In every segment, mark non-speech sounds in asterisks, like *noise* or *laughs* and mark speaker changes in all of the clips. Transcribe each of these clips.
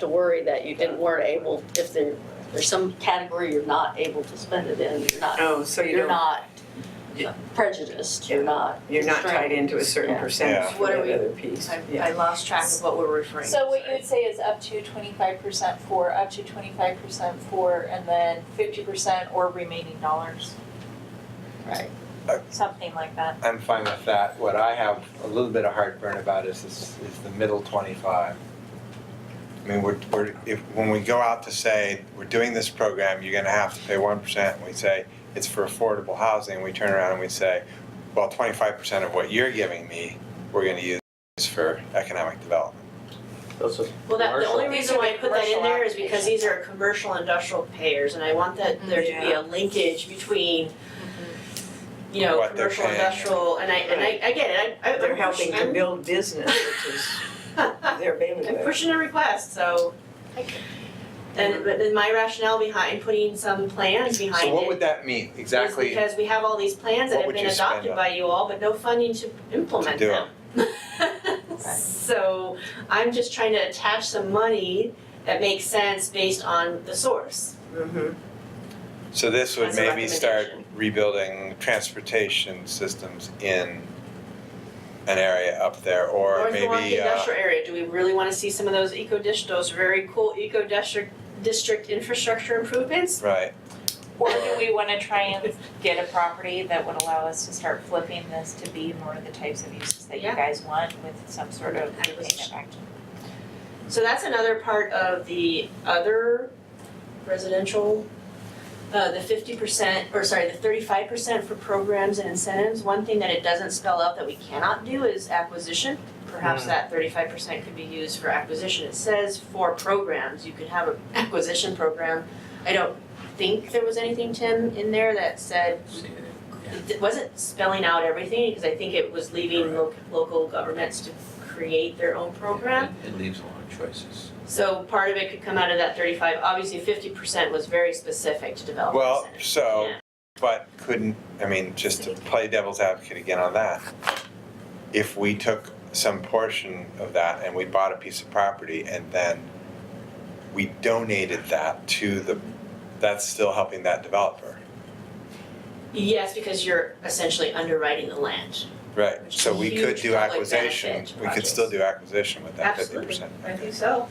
Speaker 1: to worry that you didn't, weren't able, if there, there's some category you're not able to spend it in, you're not,
Speaker 2: Oh, so you
Speaker 1: you're
Speaker 2: don't,
Speaker 1: not prejudiced, you're not.
Speaker 2: you're not tied into a certain
Speaker 1: Yeah.
Speaker 2: percentage
Speaker 3: Yeah.
Speaker 2: for
Speaker 4: What are
Speaker 2: that
Speaker 4: we-
Speaker 2: other piece.
Speaker 4: I,
Speaker 2: Yeah.
Speaker 4: I lost track of what we're referring to.
Speaker 5: So what you
Speaker 4: sorry.
Speaker 5: would say is up to twenty-five percent for, up to twenty-five percent for, and then fifty percent or remaining dollars.
Speaker 1: Right.
Speaker 5: Something like that.
Speaker 3: I'm fine with that. What I have a little bit of heartburn about is, is, is the middle twenty-five. I mean, we're, we're, if, when we go out to say, we're doing this program, you're gonna have to pay one percent, and we say, it's for affordable housing, we turn around and we say, well, twenty-five percent of what you're giving me, we're gonna use for economic development.
Speaker 6: That's a
Speaker 4: Well, that, the only
Speaker 6: commercial.
Speaker 4: reason why I put that in there is because
Speaker 5: Commercial
Speaker 4: these are commercial industrial payers, and I want that, there to be a linkage between, you know,
Speaker 3: What they're
Speaker 4: commercial,
Speaker 3: paying.
Speaker 4: industrial, and I, and I, I get it, I, I,
Speaker 2: They're
Speaker 4: I'm
Speaker 2: helping
Speaker 4: pushing,
Speaker 2: to
Speaker 4: I'm,
Speaker 2: build business, which is their
Speaker 4: *laughs* I'm
Speaker 2: bailiwick.
Speaker 4: pushing a request, so. And, but then my rationale behind putting some plans behind
Speaker 3: So
Speaker 4: it
Speaker 3: what would that mean
Speaker 4: is
Speaker 3: exactly?
Speaker 4: because we have all these plans that
Speaker 3: What
Speaker 4: have
Speaker 3: would
Speaker 4: been
Speaker 3: you spend
Speaker 4: adopted
Speaker 3: on-
Speaker 4: by you all, but no funding to implement
Speaker 3: do
Speaker 4: them. *laughs* So I'm just trying to attach some money that makes sense based on the source.
Speaker 2: Mhm.
Speaker 3: So this would
Speaker 4: As a
Speaker 3: maybe start
Speaker 4: recommendation.
Speaker 3: rebuilding transportation systems in an area up there, or
Speaker 4: Or the Milwaukee
Speaker 3: maybe, uh,
Speaker 4: industrial area, do we really wanna see some of those eco dish, those very cool eco district, district infrastructure improvements?
Speaker 3: right,
Speaker 5: Or do we wanna try and get a property that would allow us to start flipping this to be more of the types of uses that you
Speaker 4: Yeah.
Speaker 5: guys want with some sort of
Speaker 4: I was-
Speaker 5: repayment back to?
Speaker 4: So that's another part of the other residential, uh, the fifty percent, or sorry, the thirty-five percent for programs and incentives. One thing that it doesn't spell out that we cannot do is acquisition. Perhaps
Speaker 6: Hmm.
Speaker 4: that thirty-five percent could be used for acquisition. It says for programs, you could have an *laughs* acquisition program. I don't think there was anything, Tim, in there that said, it wasn't spelling out everything, because I think it was leaving lo- local governments to create their own program.
Speaker 6: It leaves a lot of choices.
Speaker 4: So part of it could come out of that thirty-five, obviously fifty percent was very specific to development
Speaker 3: well,
Speaker 4: incentives.
Speaker 3: so,
Speaker 4: Yeah.
Speaker 3: but couldn't, I mean, just to play devil's advocate again on that. If we took some portion of that and we bought a piece of property and then we donated that to the, that's still helping that developer,
Speaker 4: Yes, because you're essentially underwriting the land.
Speaker 3: right?
Speaker 4: Which
Speaker 3: So
Speaker 4: is
Speaker 3: we
Speaker 4: huge
Speaker 3: could do
Speaker 4: public
Speaker 3: acquisition,
Speaker 4: benefit
Speaker 3: we could still
Speaker 4: projects.
Speaker 3: do acquisition with that fifty
Speaker 4: Absolutely.
Speaker 3: percent.
Speaker 4: so.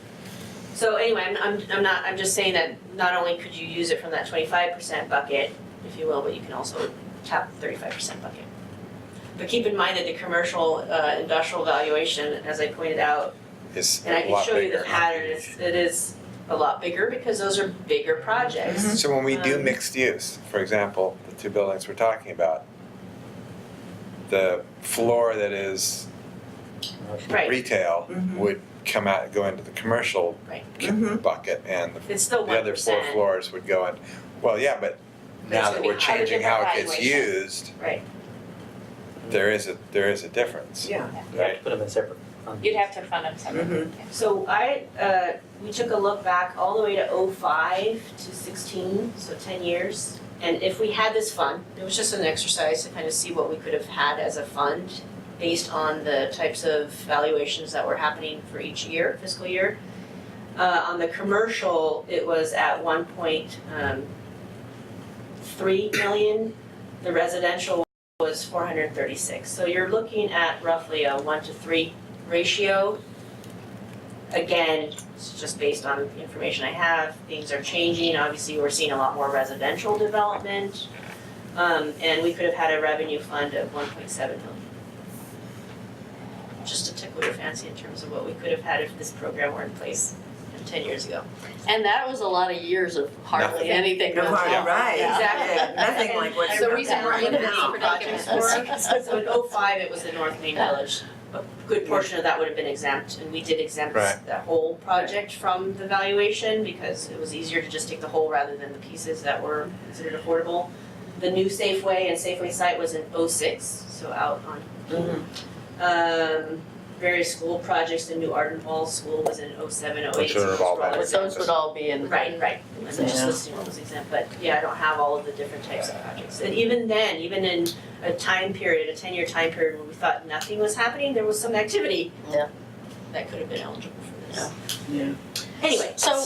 Speaker 4: So anyway, I'm, I'm, I'm not, I'm just saying that not only could you use it from that twenty-five percent bucket, if you will, but you can also tap the thirty-five percent bucket. But keep in mind that the commercial, uh, industrial valuation, as I pointed out,
Speaker 3: is
Speaker 4: And I
Speaker 3: a
Speaker 4: can
Speaker 3: lot
Speaker 4: show you the
Speaker 3: bigger.
Speaker 4: pattern, it's, it is a lot bigger because those are bigger projects.
Speaker 3: So when we do
Speaker 4: Um,
Speaker 3: mixed use, for example, the two buildings we're talking about, the floor that is
Speaker 4: Right, Mm-hmm.
Speaker 3: retail
Speaker 2: Mhm.
Speaker 3: would come out, go into the commercial
Speaker 4: Right.
Speaker 3: c-
Speaker 2: Mhm.
Speaker 3: bucket, and the,
Speaker 4: it's still
Speaker 3: the
Speaker 4: Mm-hmm. one
Speaker 3: other four
Speaker 4: percent,
Speaker 3: floors would go in. Well, yeah, but
Speaker 4: But it's
Speaker 3: now
Speaker 4: gonna
Speaker 3: that
Speaker 4: be
Speaker 3: we're
Speaker 4: higher than
Speaker 3: changing
Speaker 5: the
Speaker 3: how it gets
Speaker 5: valuation.
Speaker 3: used,
Speaker 4: right,
Speaker 3: there is a there is a difference,
Speaker 2: Yeah.
Speaker 6: You have
Speaker 3: right?
Speaker 6: to put them in separate. funds.
Speaker 5: You'd have to fund them separately.
Speaker 2: Mhm.
Speaker 4: so I, uh, we took a look back all the way to oh five to sixteen, so ten years. And if we had this fund, it was just an exercise to kind of see what we could have had as a fund based on the types of valuations that were happening for each year, fiscal year. Uh, on the commercial, it was at one point, um, three million. The residential was four hundred and thirty-six. So you're looking at roughly a one to three ratio. Again, it's just based on the information I have. Things are changing. Obviously, we're seeing a lot more residential development. Um, and we could have had a revenue fund of one point seven million. Just to tickle your fancy in terms of what we could have had if this program were in place you know, ten years ago.
Speaker 1: And that was a lot of years of hardly
Speaker 4: Nothing.
Speaker 1: anything.
Speaker 2: No,
Speaker 1: went
Speaker 2: right,
Speaker 1: on.
Speaker 2: right,
Speaker 1: Yeah.
Speaker 2: exactly, *laughs* nothing like what
Speaker 1: The
Speaker 2: you're.
Speaker 1: reason we're
Speaker 2: talking
Speaker 1: in
Speaker 2: about
Speaker 1: this
Speaker 2: now.
Speaker 1: predicament.
Speaker 2: *laughs*
Speaker 4: So in oh five, it was the North Main Village. A good portion of that would have been exempt, and we did exempt
Speaker 3: Right.
Speaker 4: the whole project from the valuation because it was easier to just take the whole rather than the pieces that were considered affordable. The new Safeway and Safeway site was in oh six, so out on
Speaker 2: Mhm.
Speaker 4: um various school projects, the new Arden Hall School was in oh seven, oh eight,
Speaker 3: Which
Speaker 4: so
Speaker 3: are
Speaker 4: those
Speaker 3: all
Speaker 4: were all
Speaker 3: back.
Speaker 1: But
Speaker 4: exempt.
Speaker 1: those would all be in.
Speaker 4: Right, right, I'm just
Speaker 2: Yeah.
Speaker 4: listing what was exempt, but yeah, I don't have all of the different types of projects. And even then, even in a time period, a ten-year time period where we thought nothing was happening, there was some activity
Speaker 1: Yeah.
Speaker 4: that could have been eligible for this.
Speaker 1: Yeah.
Speaker 2: Yeah.
Speaker 4: Anyway, so